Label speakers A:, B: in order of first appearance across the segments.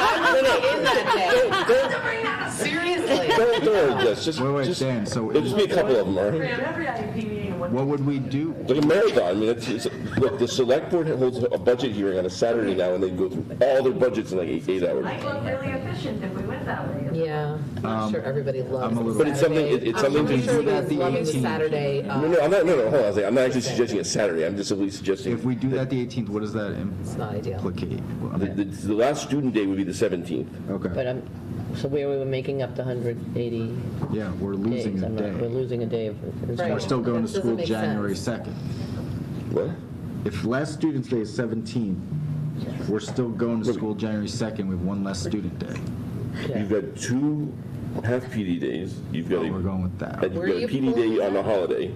A: in that
B: They're,
A: day. Seriously.
B: they're, they're just, just,
C: Wait, wait,
B: just,
C: Dan, so
B: there'll just be a couple of them, all right?
D: Every IEP meeting, what
C: what would we do?
B: Like a marathon. I mean, it's, it's, look, the select board holds a budget hearing on a Saturday now, and they go through all their budgets in like eight, eight hours.
D: might look really efficient if we went that way.
A: Yeah, I'm not sure everybody loves
C: I'm a little-
B: But it's something- it- it's
A: I'm
B: something to-
A: sure
C: That the
A: you're loving the
C: 18th.
A: Saturday. uh,
B: No, no, I'm not, no, no, hold on a second. I'm not actually suggesting a Saturday. I'm just simply suggesting.
C: If we do that the 18th, what does that
A: It's not ideal.
C: implicate? I
B: The,
C: mean,
B: the, the last student day would be the 17th.
E: But
C: Okay,
E: I'm, so where we were making up the 180
C: yeah, we're losing
E: days,
C: a
E: I'm not, we're
C: day.
E: losing a day. of- it's
A: Right.
C: We're still going to
A: That doesn't
C: school
A: make
C: January 2nd.
B: What?
C: If last student's day is 17th, we're still going to school January 2nd with one less student day.
B: You've got two half PD days. You've got a,
C: We're going with
B: and
C: that.
B: you've
A: Where
B: got
A: are
B: a
A: you
B: PD
A: pulling
B: day on a
A: that?
B: holiday.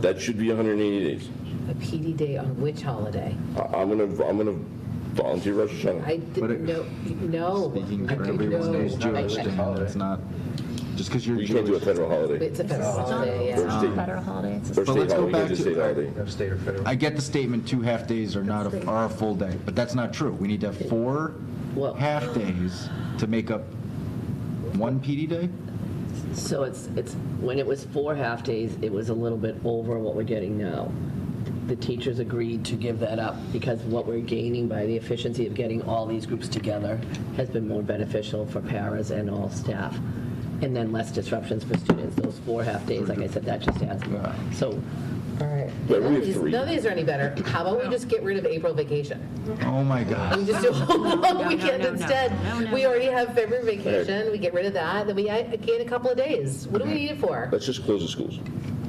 B: That should be 180 days.
A: A PD day on which holiday?
B: I, I'm gonna, I'm gonna volunteer Rosh Hashanah.
A: I
C: But it-
A: didn't know, no.
C: Speaking
A: I
C: for
A: didn't
C: everyone
A: know.
C: who's Jewish,
A: I- I-
C: Dan, it's not, just because you're
B: You can't do a
C: Jewish.
B: federal holiday.
A: It's a federal holiday,
B: Or
A: yeah. um,
B: state,
F: Federal holidays.
B: or state
C: let's go
B: holiday, you
C: back
B: can't just
C: to-
B: state holiday.
G: State or federal?
C: I get the statement, two half-days are not, a- are a full day, but that's not true. We need to have four
E: Well-
C: half-days to make up one PD day?
E: So it's, it's, when it was four half-days, it was a little bit over what we're getting now. The teachers agreed to give that up because what we're gaining by the efficiency of getting all these groups together has been more beneficial for paras and all staff. And then less disruptions for students. Those four half-days, like I said, that just adds.
C: Yeah.
E: So,
B: Yeah,
A: None
B: we
A: of
B: have
A: these-
B: three.
A: none of these are any better. How about we just get rid of April vacation?
C: Oh, my God.
A: We just do a whole long weekend
F: no, no.
A: instead.
F: No, no,
A: We
F: no.
A: already have February vacation, we get rid of that, then we gain a couple of days. What do we need it for?
B: Let's just close the schools.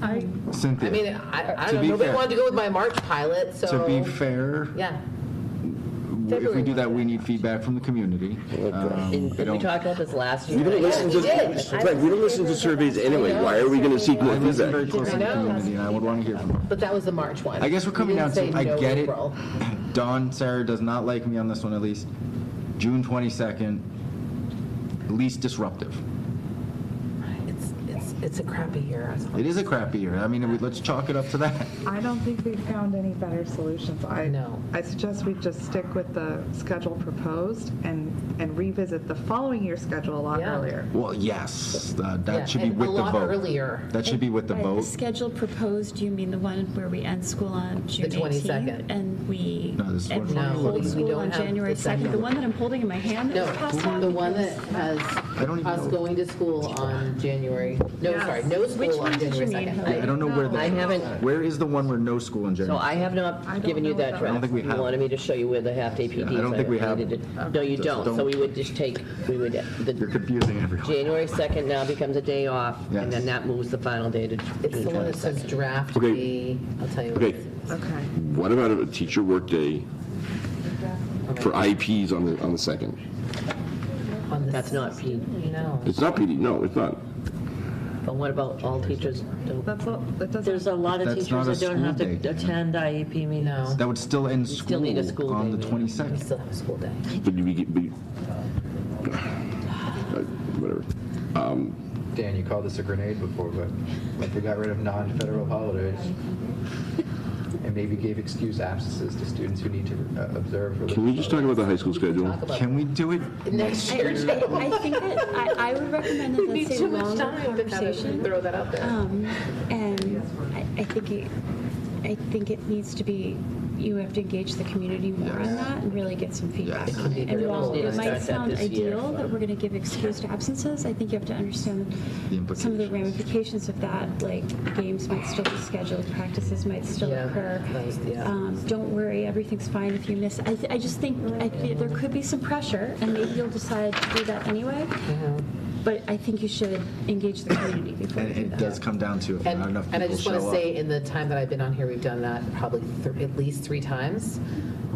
A: I mean,
C: Cynthia,
A: I, I
C: To
A: don't
C: be
A: know, nobody
C: fair-
A: wanted to go with my March pilot,
C: to be
A: so,
C: fair,
A: yeah.
C: if we do that, we need feedback from the community. Um,
E: and
C: I
E: we
C: don't-
E: talked about this last year.
B: We don't listen to,
A: we did.
B: Frank, we don't listen to surveys anyway. Why are we gonna seek more
C: I listen very
B: feedback?
C: closely to the community, and I would want to hear from them.
A: But that was the March one.
C: I guess we're
A: We
C: coming down
A: didn't
C: to,
A: say
C: I
A: no
C: get it.
A: April.
C: Dawn, Sarah does not like me on this one, at least. June 22nd, least disruptive.
A: It's, it's, it's a crappy year.
C: It is a crappy year. I mean, we- let's chalk it up to that.
H: I don't think we've found any better solutions. I
A: No.
H: I suggest we just stick with the schedule proposed and, and revisit the following year's schedule a lot
A: Yeah.
H: earlier.
C: Well, yes, uh,
A: Yeah,
C: that should be
A: and
C: with
A: a
C: the
A: lot
C: vote.
A: earlier.
C: That should be with the
F: Right,
C: vote.
F: Schedule proposed, you mean the one where we end school on June
A: 22nd.
F: 18th? And we,
C: No, this is
F: and
C: what
F: we
C: we're
A: doing.
F: hold
A: No, we
F: school
A: don't
F: on
A: have
F: January
A: the
F: 2nd? The
A: second.
F: one that I'm holding in my hand
A: No,
F: that was passed out?
A: the one that has
C: I don't even
A: us
C: know.
A: going to school on January, no,
H: Yes.
A: sorry, no
F: Which
A: school
F: one
A: on
F: did you
A: January
F: mean?
A: 2nd.
C: I don't know where
E: I
C: the,
E: haven't,
C: where is the one where no school in
E: So
C: January?
E: I have
H: I
E: not
H: don't
E: given you
H: know
E: that
H: about
E: draft.
C: I don't think we have.
E: You wanted me to show you where the half-day PDs are.
C: I don't think we have.
E: related to- No, you
C: Just
E: don't. So
C: don't-
E: we would just take, we would,
C: You're
E: the
C: confusing everyone.
E: January 2nd now becomes a day off, and
C: Yes.
E: then that moves the final day to
A: It's
E: June
A: the one that
E: 22nd.
A: says draft
B: Okay.
A: B. I'll tell you. what
B: Okay,
A: it is.
H: Okay.
B: what about a teacher workday for IEPs on the, on the second?
A: On the
E: That's not P,
A: No.
B: It's not PD, no, it's not.
E: but what about all teachers? don't-
H: That's, all- that
I: There's
H: doesn't,
I: a lot of
C: That's not
I: teachers
C: a
I: that don't have
C: school day.
I: to attend IEP meetings.
A: No.
C: That would still end
E: still need a school
C: school on
E: day,
C: the
E: yeah.
C: 22nd.
A: We still have a school day.
B: But you, get- but you- uh, whatever.
G: Dan, you called this a grenade before, but if we got rid of non-federal holidays and maybe gave excuse absences to students who need to uh, observe. religious
B: Can we just talk about the high school schedule?
A: Talk about
C: Can we do it?
A: next
F: I
A: year.
F: I think that, I, I would recommend that
A: Need
F: that's a
A: too much
F: longer
A: time to have it-
F: conversation.
A: throw that out there.
F: Um, and I, I think it, I think it needs to be, you have to engage the community more on that and really get some feedback on it. And while
E: We'll
F: it
E: start
F: might
E: that
F: sound
E: this year.
F: ideal that we're gonna give excused absences, I think you have to understand
C: The
F: some of the
C: implications.
F: ramifications of that, like games might still be scheduled, practices might still
A: Yeah,
F: occur.
A: that was- yeah.
F: Um, Don't worry, everything's fine if you miss, I, I just think, I feel there could be some pressure and maybe you'll decide to do that anyway. But I think you should engage the community before you
C: And
F: do
C: it
F: that.
C: does come down to if not
A: And,
C: enough
A: and I
C: people
A: just want to
C: show up.
A: say, in the time that I've been on here, we've done that probably th- at least three times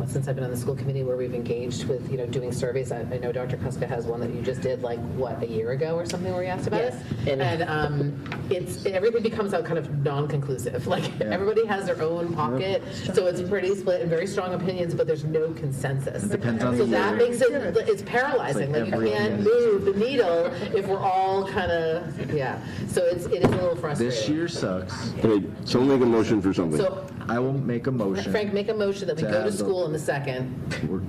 A: uh, since I've been on the school committee where we've engaged with, you know, doing surveys. I, I know Dr. Kuska has one that you just did like, what, a year ago or something where you asked about it?
E: And-
A: And um, it's, everything becomes out kind of non-conclusive. Like, everybody has their own pocket. So it's pretty split and very strong opinions, but there's no consensus.
C: depends on
A: So
C: the
A: that
C: year.
A: makes it, it's paralyzing. Like,
C: It's like
A: you
C: every
A: can't
C: opinion.
A: move the needle if we're all kind of, yeah. So it's, it is a little frustrating.
C: This year sucks.
B: Okay, someone make a motion for something.
A: So
C: I will make a motion.
A: Frank, make a motion that we
C: To
A: go to
C: have the-
A: school in the second
C: We're